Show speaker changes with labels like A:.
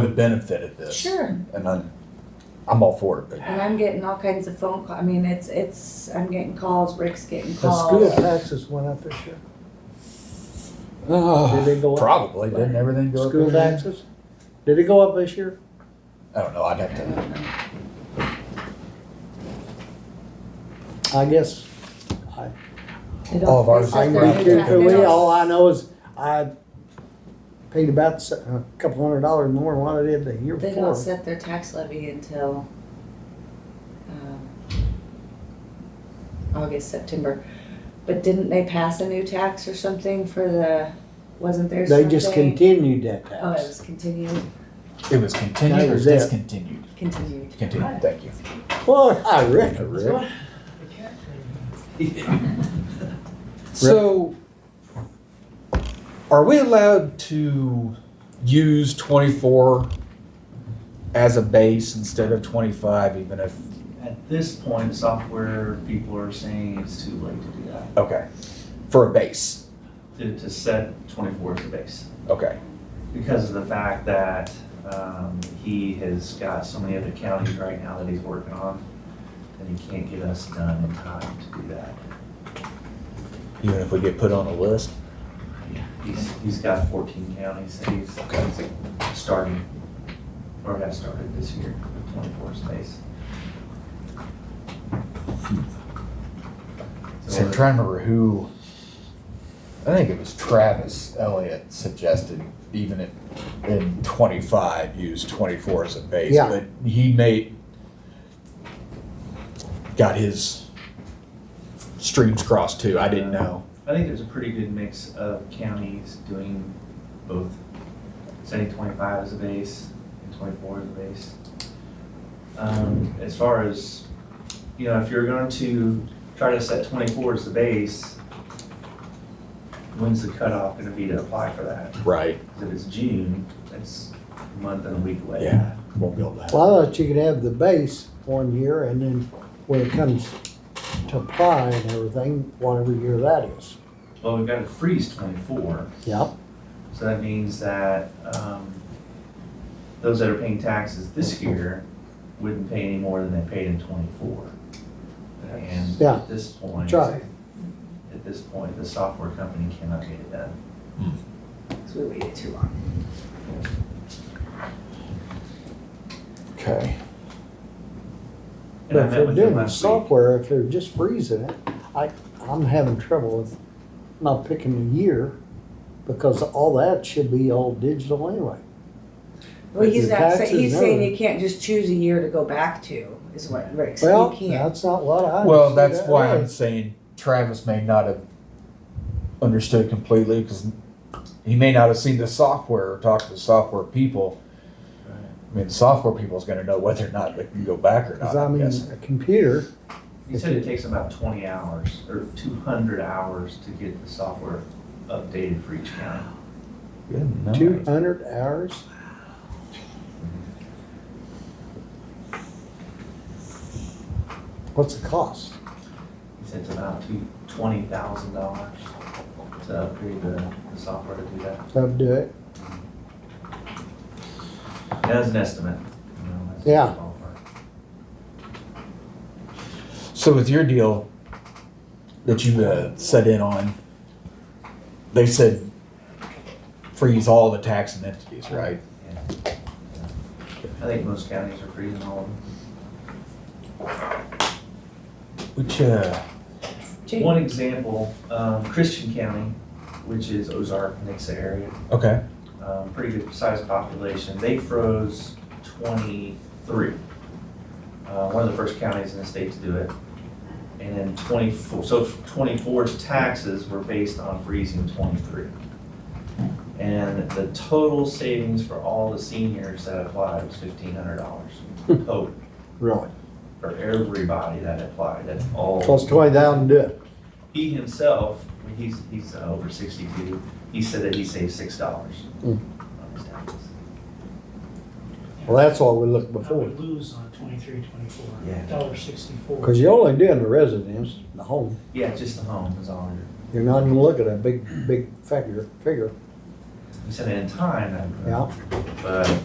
A: would benefit at this.
B: Sure,
A: And I'm, I'm all for it.
B: and I'm getting all kinds of phone call, I mean, it's, it's, I'm getting calls, Rick's getting
C: The
B: calls.
C: school taxes went up this year. Did they go up?
A: Probably, didn't everything go up?
C: School
A: there?
C: taxes? Did it go up this year?
A: I don't know, I'd have
B: I
A: to,
B: don't know.
C: I guess.
B: They don't-
A: All of ours
B: they
C: I
B: said
A: is
B: they're
A: right there.
B: gonna
C: can do
B: tax-
C: for
B: they
C: me,
B: don't-
C: all I know is I paid about s- a couple hundred dollars more than what I did the year
B: They don't
C: before.
B: set their tax levy until, um, August, September. But didn't they pass a new tax or something for the, wasn't there
C: They
B: something?
C: just continued that
B: Oh, it
C: tax.
B: was continued,
A: it was continued
C: That
A: or
C: was it.
A: discontinued?
B: continued.
A: Continued, thank you.
B: Oh,
C: Well, I reckon.
A: Rick?
C: so.
D: So, are we allowed to use 24 as a base instead of 25, even if?
E: At this point, software people are saying it's too late to do that,
D: Okay. For a base.
E: to, to set twenty-four as a base.
D: Okay.
E: Because of the fact that, um, he has got so many other counties right now that he's working on, and he can't get us done in time to do that.
A: Even if we get put on a list?
E: He's, he's got fourteen counties that he's, he's starting, or have started this year, with twenty-four space.
A: So I'm trying to remember who, I think it was Travis Elliott suggested even if in twenty-five, use twenty-four as a base.
C: Yeah.
A: But he made, got his streams crossed too, I didn't know.
E: I think there's a pretty good mix of counties doing both, setting twenty-five as a base and twenty-four as a base. Um, as far as, you know, if you're going to try to set twenty-four as the base, when's the cutoff gonna be to apply for that?
A: Right.
E: Because if it's June, that's a month and a week away.
A: Yeah. Won't be able to.
C: Well, I thought you could have the base one year and then when it comes to apply and everything, whatever year that is.
E: Well, we've got to freeze twenty-four.
C: Yep,
E: So that means that um, those that are paying taxes this year wouldn't pay any more than they paid in twenty-four. And
C: Yeah.
E: at this point,
C: Try.
E: at this point, the software company cannot get it done.
B: Cause we waited too long.
A: Okay.
E: And I
C: But if
E: met
C: they're
E: with them
C: doing the
E: last week.
C: software, if they're just freezing it, I, I'm having trouble with not picking a year because all that should be all digital anyway.
B: Well,
C: But
B: he's
C: your
B: not, saying
C: taxes
B: he's
C: and
B: saying
C: everything.
B: you can't just choose a year to go back to, is what Rick said,
C: Well,
B: you can't.
C: that's not what I.
A: Well,
C: understood
A: that's
C: that
A: why I'm
C: was.
A: saying Travis may not have understood completely because he may not have seen the software or talked to the software people. I mean, the software people is going to know whether or not they can go back or not.
C: Cause I
A: I'm
C: mean,
A: guessing.
C: a computer,
E: He said it takes about twenty hours or two hundred hours to get the software updated for each county.
A: Good night.
C: two hundred hours, what's the cost?
E: He said it's about two, twenty thousand dollars to upgrade the, the software to do that.
C: So do it.
E: And That's an estimate. you know, that's
C: Yeah.
E: ballpark.
A: So with your deal that you uh, set in on, they said freeze all the taxing entities, right?
E: I think most counties are freezing all of them.
A: Which uh,
B: Jane,
E: One example, um, Christian County, which is Ozark, Nixa area,
A: okay,
E: um, pretty good sized population, they froze twenty-three. Uh, one of the first counties in the state to do it. And then twenty-four, so 24's taxes were based on freezing twenty-three. And the total savings for all the seniors that applied was fifteen hundred dollars total
C: Really?
E: for everybody that applied, that's all.
C: Plus twenty thousand, do it.
E: He himself, when he's, he's uh, over sixty-two, he said that he saved six dollars
C: Mm.
E: on his taxes.
C: Well, that's what we looked
F: I
C: before,
F: would lose on twenty-three, twenty-four,
E: Yeah.
F: dollar sixty-four.
C: cause you're only doing the residence, the home.
E: Yeah, just the home is all under.
C: You're not even looking at a big, big figure, figure.
E: He said in time, I
C: Yeah.
E: but